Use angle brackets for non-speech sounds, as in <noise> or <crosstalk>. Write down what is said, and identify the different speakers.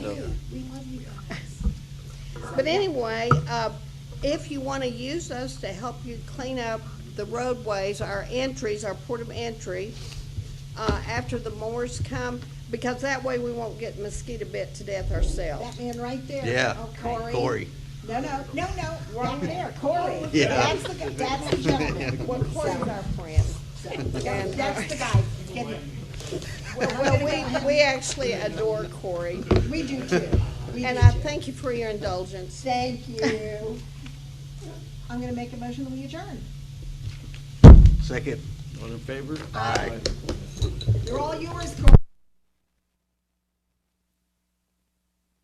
Speaker 1: But anyway, uh, if you want to use us to help you clean up the roadways, our entries, our port of entry, uh, after the mowers come, because that way we won't get mosquito bit to death
Speaker 2: That
Speaker 1: ourselves.
Speaker 2: man right there.
Speaker 3: Yeah,
Speaker 2: Oh, Corey.
Speaker 3: Corey.
Speaker 2: No, no, no, no, wrong there, Corey.
Speaker 3: Yeah.
Speaker 2: That's the, guy- that's the
Speaker 3: <laughs>
Speaker 2: gentleman.
Speaker 1: Well, Corey's our friend.
Speaker 2: That- That's the guy. Get it.
Speaker 1: Well, we, we actually adore Corey,
Speaker 2: We do too. We
Speaker 1: and
Speaker 2: do
Speaker 1: I
Speaker 2: too.
Speaker 1: thank you for your indulgence.
Speaker 2: Thank you. I'm gonna make a motion that we adjourn.
Speaker 3: Second.
Speaker 4: All in favor?
Speaker 3: Aye.
Speaker 2: You're all yours, Corey.